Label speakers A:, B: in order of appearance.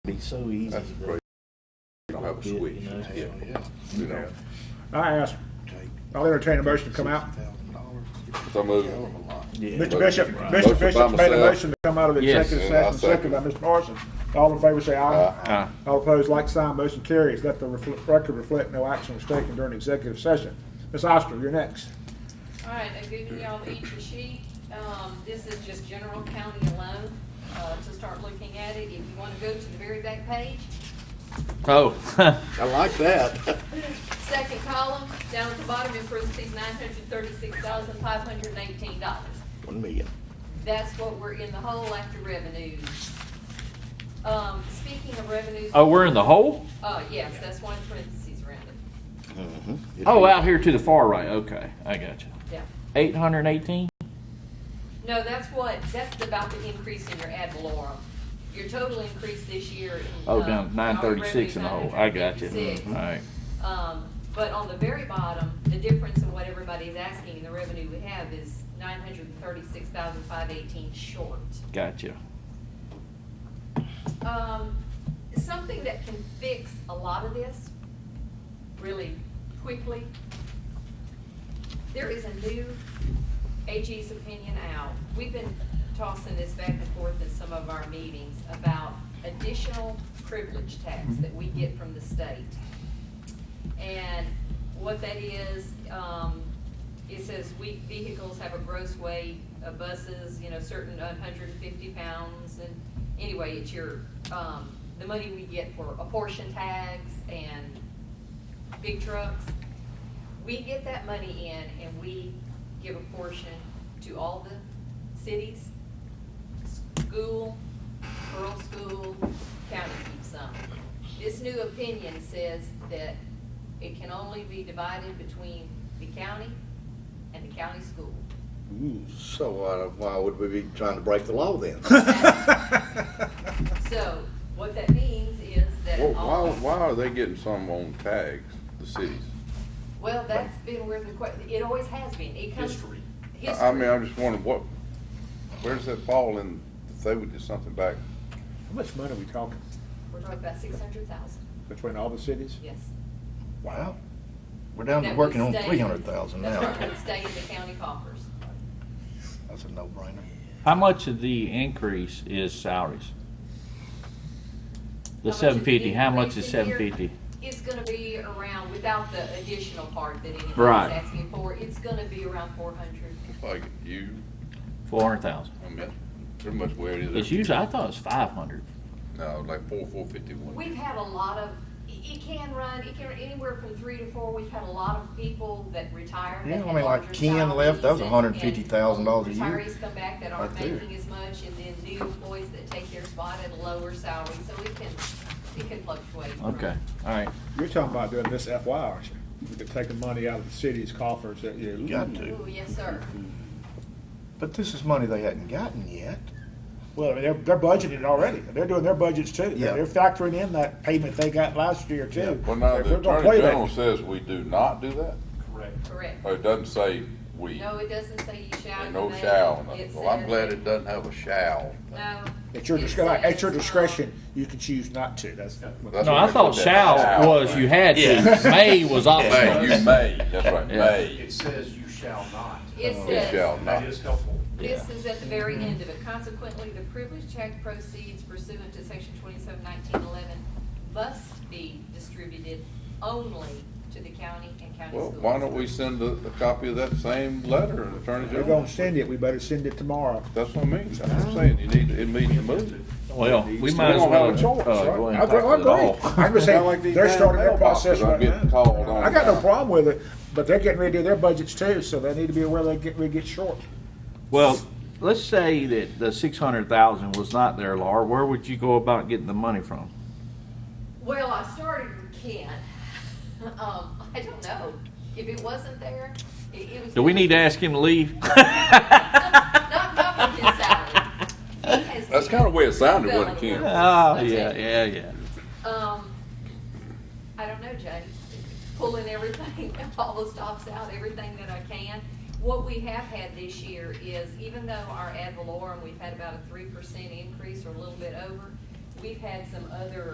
A: it's so easy.
B: That's
A: to
B: great. You don't have a
A: bid,
B: switch,
A: you know?
B: yeah, you know.
C: I ask, I'll entertain a motion to come out.
B: So move.
A: Yeah.
C: Mr. Bishop,
B: Motion by
C: Mr. Bishop made a
B: myself.
C: motion to come out of the
D: Yes.
C: executive
B: And I'll
C: session, second by Mr. Parsons. All in favor say aye.
B: Uh,
C: All opposed, like sign, motion carries. Let the refl- record reflect no action was taken during executive session. Ms. Oster, you're next.
E: All right, I've given y'all each a sheet. Um, this is just general county alone, uh, to start looking at it. If you wanna go to the very back page,
D: Oh,
F: I like that.
E: second column, down at the bottom in parentheses, nine hundred thirty-six thousand, five hundred and eighteen dollars.
F: One million.
E: That's what we're in the hole after revenues. Um, speaking of revenues.
D: oh, we're in the hole?
E: Uh, yes, that's one parentheses around it,
D: Oh, out here to the far right. Okay, I got you.
E: yeah.
D: 818?
E: No, that's what, that's about the increase in your ad valorem. Your total increase this year. in,
D: Oh,
E: uh,
D: down 936 in the hole. I Mm-hmm. got you.
E: 936.
D: All right.
E: Um, but on the very bottom, the difference in what everybody's asking and the revenue we have is nine hundred and thirty-six thousand five eighteen short.
D: Got you.
E: Um, something that can fix a lot of this really quickly. There is a new AG's opinion out. We've been tossing this back and forth in some of our meetings about additional privilege tax that we get from the state. And what that is, um, it says weak vehicles have a gross weight of buses, you know, certain hundred and fifty pounds, and anyway, it's your, um, the money we get for apportion tags and big trucks. We get that money in and we give a portion to all the cities, school, rural school, county keeps some. This new opinion says that it can only be divided between the county and the county school.
F: So uh, why would we be trying to break the law then?
E: So what that means is that
B: Well,
E: all.
B: why, why are they getting some on tags, the cities?
E: Well, that's been where the, que- it always has been. It comes. History.
B: I- I mean, I'm just wondering what, where does that fall in, if they would do something back?
C: How much money are we talking
E: We're talking about six hundred thousand,
C: between all the cities?
E: yes.
G: Wow. We're down to
E: That
G: working
E: would
G: on
E: stay-
G: three hundred thousand now.
E: That's what would stay in the county coffers.
G: That's a no-brainer.
D: How much of the increase is salaries? The
E: How much is
D: seven fifty, how much
E: increase
D: is
E: in
D: seven
E: here?
D: fifty?
E: It's gonna be around, without the additional part that anybody's
D: Right.
E: asking for, it's gonna be around four hundred.
B: It's like you,
D: Four hundred thousand.
B: I mean, that's pretty much where it
D: It's
B: is.
D: usually, I thought it was five hundred.
B: No, like four, four fifty-one.
E: We've had a lot of, it it can run, it can run anywhere from three to four, we've had a lot of people that retire. that
G: Yeah, I
E: had
G: mean, like
E: larger
G: 10 left,
E: salaries
G: that was
E: and-
G: $150,000 a year.
E: and Retirees come back that aren't
G: Right there.
E: making as much, and then new employees that take their spot at a lower salary, so it can, it can fluctuate. from-
D: Okay, all right.
C: You're talking about doing this FY, aren't you? We could take the money out of the city's coffers that you.
G: You got
E: Ooh,
G: to.
E: Oh, yes, sir.
G: But this is money they hadn't gotten yet.
C: Well, they're, they're budgeted it already. They're doing their budgets too.
G: Yeah.
C: They're factoring in that payment they got last year
G: Yeah.
C: too.
B: Well, now,
C: They're
B: the
C: gonna
B: Attorney
C: play that.
B: General says we do not do that,
E: Correct.
B: or it doesn't say we,
E: No, it doesn't say you shall.
B: and
E: you
B: no
E: may.
B: shall.
E: It
B: Well, I'm
E: says-
B: glad it doesn't have a shall.
E: No.
C: At your
E: It
C: discretion, at your
E: says, um,
C: discretion, you can choose not to. That's not.
B: That's
D: No,
B: what
D: I
B: they
D: thought
B: put that
D: shall was you had to, may was
B: May,
D: optional.
B: you may, that's right,
D: Yeah.
B: may,
H: It says you shall not.
E: It
C: Uh,
B: you shall
E: says,
H: That
B: not.
H: is helpful.
E: this is at the very end of it. Consequently, the privilege check proceeds pursuant to section twenty-seven nineteen eleven must be distributed only to the county and county
B: Well,
E: schools.
B: why don't we send a, a copy of that same letter to Attorney
C: We're
B: General?
C: gonna send it. We better send it tomorrow.
B: That's what I mean, I'm just saying, you need, it needs to move.
D: Well, we might
B: We
D: as
B: don't
D: well.
B: have a choice,
D: uh, go
B: right?
D: ahead and tackle it all.
C: I'm just saying, they're starting their process
B: I'm
C: right
B: getting
C: now.
B: called on.
C: I got no problem with it, but they're getting ready to do their budgets too, so they need to be aware they get, we get short.
D: Well, let's say that the six hundred thousand was not there, Laura, where would you go about getting the money from?
E: Well, I started with Ken. Um, I don't know. If it wasn't there, it, it was.
D: Do we need to ask him to leave?
E: Not, not for his salary. He has
B: That's
E: been
B: kinda the way it sounded, wasn't it,
E: filling
B: Ken?
E: those.
D: Oh,
E: Okay.
D: yeah, yeah, yeah.
E: Um, I don't know, Jay. Pulling everything, all the stops out, everything that I can. What we have had this year is, even though our ad valorem, we've had about a three percent increase or a little bit over, we've had some other